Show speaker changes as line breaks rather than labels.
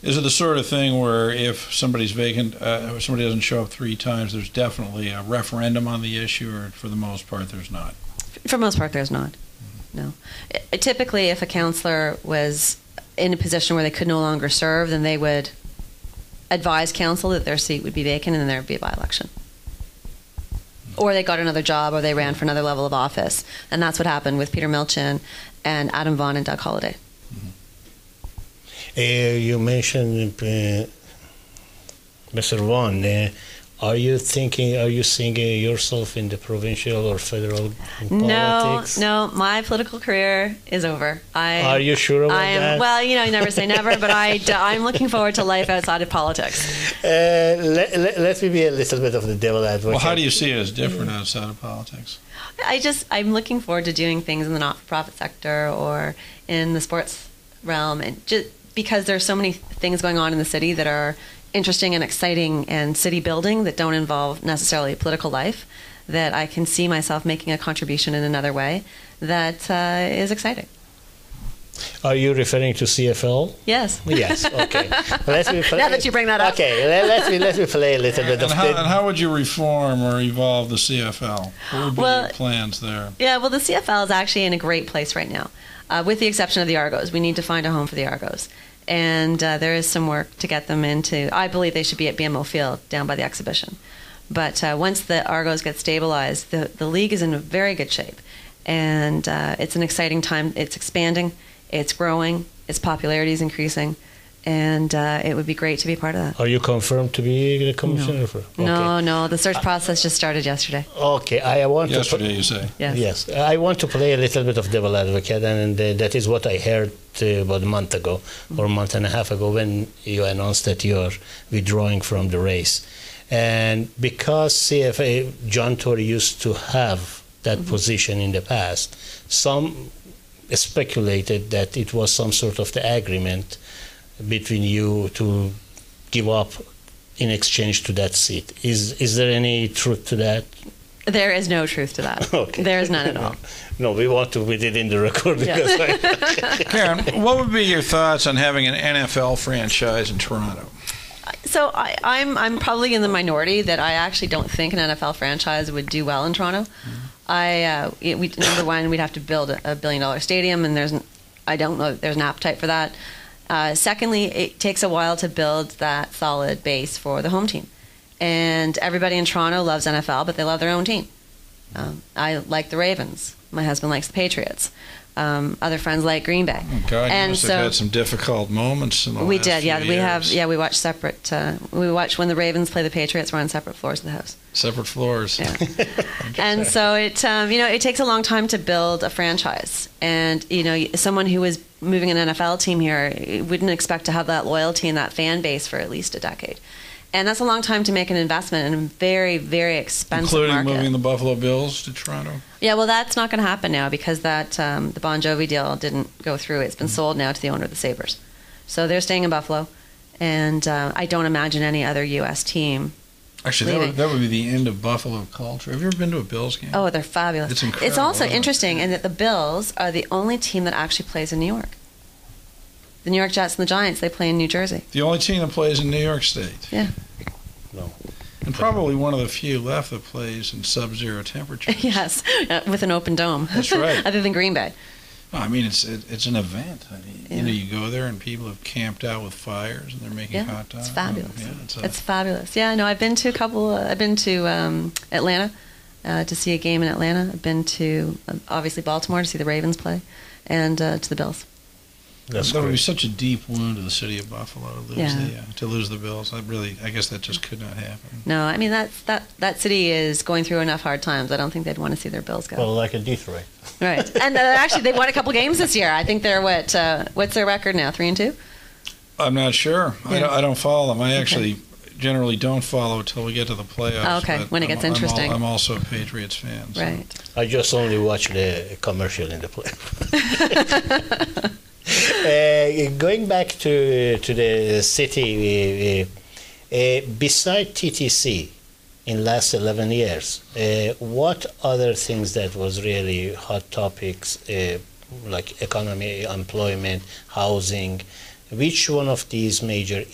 Is it the sort of thing where if somebody's vacant, uh, if somebody doesn't show up three times, there's definitely a referendum on the issue, or for the most part, there's not?
For most part, there's not. No. I- Typically, if a counselor was in a position where they could no longer serve, then they would advise council that their seat would be vacant and then there would be a by election. Or they got another job or they ran for another level of office. And that's what happened with Peter Milchin and Adam Vaughn and Doug Holliday.
Uh, you mentioned uh, Mr. Vaughan. Uh, are you thinking? Are you seeing uh, yourself in the provincial or federal politics?
No, no, my political career is over. I,
Are you sure about
I am,
that?
Well, you know, you never say never, but I, I'm looking forward to life outside of politics.
Uh, let, let, let me be a little bit of the devil advocate.
Well, how do you see it as different outside of politics?
I just I'm looking forward to doing things in the not-for-profit sector or in the sports realm, and just because there's so many things going on in the city that are interesting and exciting and city building that don't involve necessarily political life, that I can see myself making a contribution in another way that uh, is exciting.
Are you referring to CFL?
Yes.
Yes. Okay. let me play,
Now that you bring that up.
Okay. Let, let me let me play a little bit
And
of
how,
the,
and how would you reform or evolve the CFL? What would be
Well-
your plans there?
Yeah, well, the CFL is actually in a great place right now, uh, with the exception of the Argos. We need to find a home for the Argos. And uh, there is some work to get them into. I believe they should be at BMO Field down by the exhibition. But uh, once the Argos get stabilized, the, the league is in very good shape. And uh, it's an exciting time. It's expanding, it's growing, its popularity is increasing. And uh, it would be great to be part of that.
Are you confirmed to be the commissioner? for? Okay.
No, no, the search process just started yesterday.
Okay. I want to. put-
Yesterday, you say.
Yes.
Yes, I want to play a little bit of devil advocate, and uh, that is what I heard uh, about a month ago or a month and a half ago when you announced that you are withdrawing from the race. And because CFA, John Tory used to have that position in the past, some speculated that it was some sort of the agreement between you to give up in exchange to that seat. Is is there any truth to that?
There is no truth to that.
Okay.
There is none at all.
No, we want to put it in the record because I,
Karen, what would be your thoughts on having an NFL franchise in Toronto?
So I, I'm I'm probably in the minority that I actually don't think an NFL franchise would do well in Toronto. I uh, it- we number one we'd have to build a, a billion dollar stadium, and there's n- I don't know that there's an appetite for that. Uh, secondly, it takes a while to build that solid base for the home team, and everybody in Toronto loves NFL, but they love their own team. Um, I like the Ravens. My husband likes the Patriots. Um, other friends like Green Bay.
God, you
And
must
so-
have had some difficult moments in the
we
last
did,
few
yeah. We have,
years.
yeah. We watch separate. Uh, we watch when the Ravens play the Patriots. We're on separate floors of the house,
Separate floors.
Yeah. and so it, um, you know, it takes a long time to build a franchise. And you know, someone who is moving an NFL team here eh, wouldn't expect to have that loyalty and that fan base for at least a decade. And that's a long time to make an investment in a very, very expensive
Including
market.
moving the Buffalo Bills to Toronto.
Yeah, well, that's not going to happen now because that um, the Bon Jovi deal didn't go through. It's been
Mm-hmm.
sold now to the owner of the Sabers, so they're staying in Buffalo, and uh, I don't imagine any other U.S. team.
Actually, that would,
Leaving.
that would be the end of Buffalo culture. Have you ever been to a Bills game?
Oh, they're fabulous!
It's incredible,
It's also
isn't it?
interesting in that the Bills are the only team that actually plays in New York. The New York Jets and the Giants they play in New Jersey.
The only team that plays in New York State.
Yeah.
No.
And probably one of the few left that plays in sub-zero temperatures.
yes, uh, with an open dome.
That's right.
other than Green Bay.
I mean, it's it, it's an event. I mean, You
Yeah.
know, you go there and people have camped out with fires and they're making
Yeah,
hot dogs.
it's fabulous.
Yeah, it's a-
It's fabulous. Yeah, no, I've been to a couple. uh, I've been to um, Atlanta uh, to see a game in Atlanta. I've been to um, obviously Baltimore to see the Ravens play, and uh, to the Bills.
that's
that would be
great.
such a deep wound to the city of Buffalo to lose
Yeah.
the uh, to lose the Bills. I really, I guess that just could not happen.
No, I mean that's that that city is going through enough hard times. I don't think they'd want to see their Bills go.
Well, like a Detroit.
right, and uh, actually they won a couple games this year. I think they're what uh, what's their record now? Three and two.
I'm not sure. I,
Yeah.
don't, I don't follow them. I actually generally don't follow until we get to the playoffs.
Oh, okay.
but
When it
I'm-
gets
I'm al-
interesting.
I'm also a Patriots fan. so-
Right.
I just only watch the commercial in the play. uh, going back to to the city, uh, uh, beside TTC, in last eleven years, uh, what other things that was really hot topics uh, like economy, employment, housing, Which one of these major